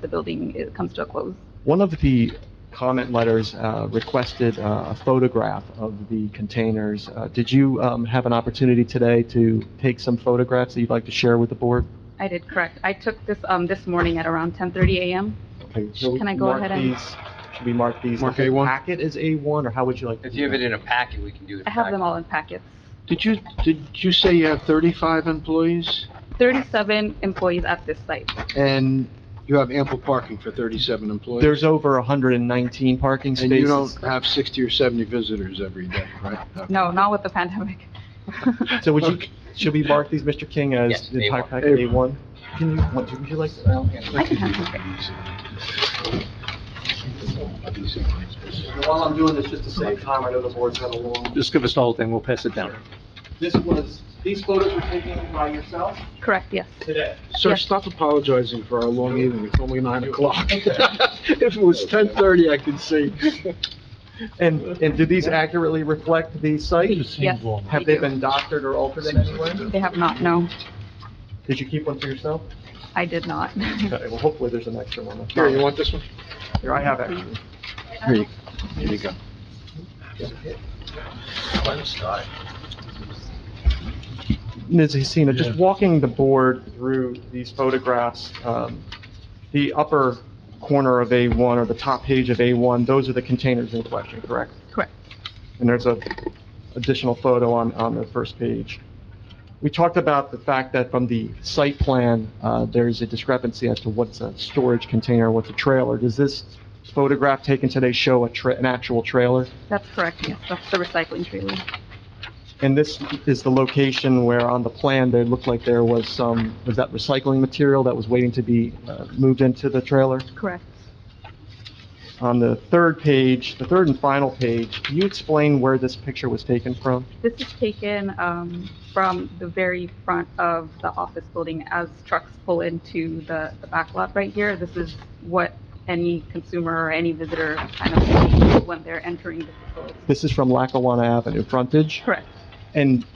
the building it comes to a close. One of the comment letters uh, requested uh, a photograph of the containers. Uh, Did you um, have an opportunity today to take some photographs that you'd like to share with the board? I did correct. I took this, um, this morning at around 10:30 a.m. so we Can I go mark ahead and- Should we mark these? Mark A1? Packet is A1, or how would you like? to If you have it in a packet, we can do it. I have them all in packets. Did you, did you say you have 35 employees? 37 employees at this site. And you have ample parking for 37 employees? There's over 119 parking And you don't spaces. have 60 or 70 visitors every day, right? Okay. No, not with the pandemic. So would you, Okay. should we mark these, Mr. King, as Yes, the entire A1. packet, A1? Can you, what- would you like? I can have them. While I'm doing this, just to save time, I know the board's had a long, Just give us the whole thing, we'll pass it down. this was, these photos were taken by yourself Correct, yes. today? Sir, Yes. stop apologizing for our long evening, it's only 9 o'clock. If it was 10:30, I could see. And, and do these accurately reflect the sites? Yes, Have they been doctored or altered in any way? they have not, no, Did you keep one for yourself? I did not. Okay, well, hopefully there's an extra one. Here, you want this one? Here, I have extra. Here you- here you go. Ms. Hesina, just walking the board through these photographs, um, the upper corner of A1 or the top page of A1, those are the containers in question, correct? Correct. And there's a additional photo on, on the first page. We talked about the fact that from the site plan, uh, there's a discrepancy as to what's a storage container, what's a trailer. Does this photograph taken today show a tra, an actual trailer? That's correct, yes, that's the recycling trailer. And this is the location where on the plan, there looked like there was some, was that recycling material that was waiting to be uh, moved into the trailer? Correct. On the third page, the third and final page, can you explain where this picture was taken from? This is taken um, from the very front of the office building as trucks pull into the the back lot right here. This is what any consumer or any visitor kind of sees when they're entering the facility. This is from Lackawanna Avenue frontage, Correct. and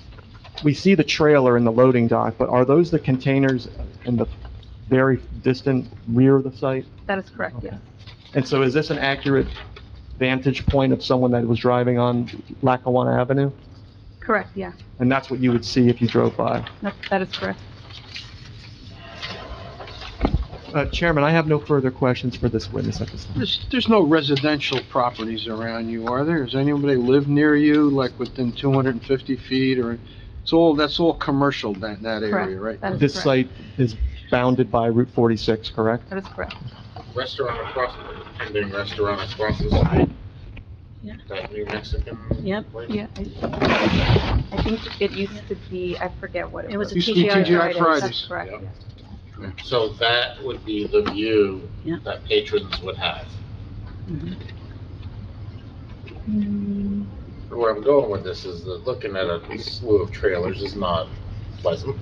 we see the trailer in the loading dock, but are those the containers in the very distant rear of the site? That is correct, yes. And so is this an accurate vantage point of someone that was driving on Lackawanna Avenue? Correct, yeah. And that's what you would see if you drove by? That that is correct. Uh, Chairman, I have no further questions for this witness at this time. There's, there's no residential properties around you, are there? Does anybody live near you, like within 250 feet, or, it's all, that's all commercial, that, that area, right? Correct. That is This correct. site is bounded by Route 46, correct? That is correct. restaurant across, pending restaurant across the street. That new Mexican. Yep. place. Yeah. I I think it used to be, I forget what it It was. was a Used to be TGI TGI Fridays. Fridays. That's correct, Yep. yes. So that would be the view Yeah. that patrons would have. Mm-hmm. Mm, Where I'm going with this is that looking at a slew of trailers is not pleasant.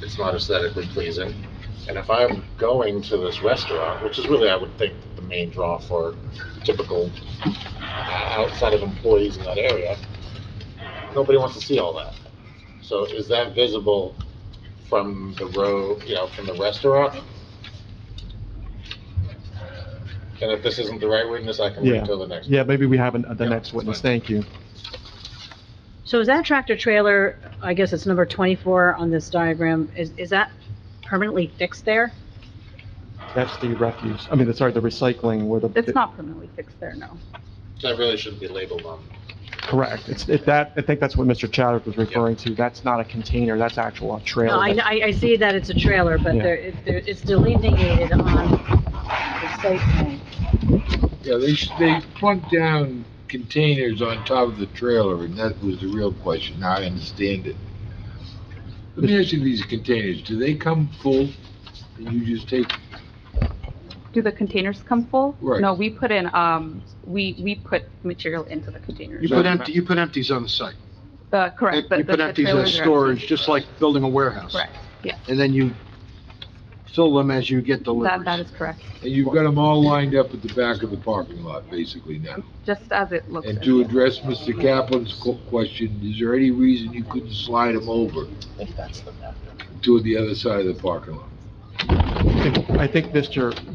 It's not aesthetically pleasing. And if I'm going to this restaurant, which is really, I would think, the main draw for typical uh, outside of employees in that area, nobody wants to see all that. So is that visible from the road, you know, from the restaurant? And if this isn't the right witness, I can wait Yeah. until the next. Yeah, maybe we have an- uh, the Yeah, next that's witness, fine. thank you. So is that tractor trailer, I guess it's number 24 on this diagram, is, is that permanently fixed there? That's the refuse, I mean, the- sorry, the recycling where the... It's not permanently fixed there, no. That really shouldn't be labeled on Correct, it's, it- that, I think that's what Mr. Chadwick was referring to, that's not a container, that's actual a trailer. No, I, That's- I, I see that it's a trailer, but Yeah. there, it- there- it's delineated on the site plan. Yeah, they, sh- they plunk down containers on top of the trailer, and that was the real question, now I understand it. Let me ask you, these containers, do they come full, and you just take, Do the containers come full? Right. No, we put in, um, we, we put material into the You containers. put empty, you put empties on the site. Uh, correct. the- You the- put the empties in trailers are- storage, just like building a warehouse. Correct, yeah. And then you fill them as you get That, that is deliveries. correct, and you've got them all lined up at the back of the parking lot, basically now? just as it looks. And in to here. address Mr. Kaplan's qu- question, is there any reason you couldn't slide them over I think that's the map. to the other side of the parking lot? If I think Mr.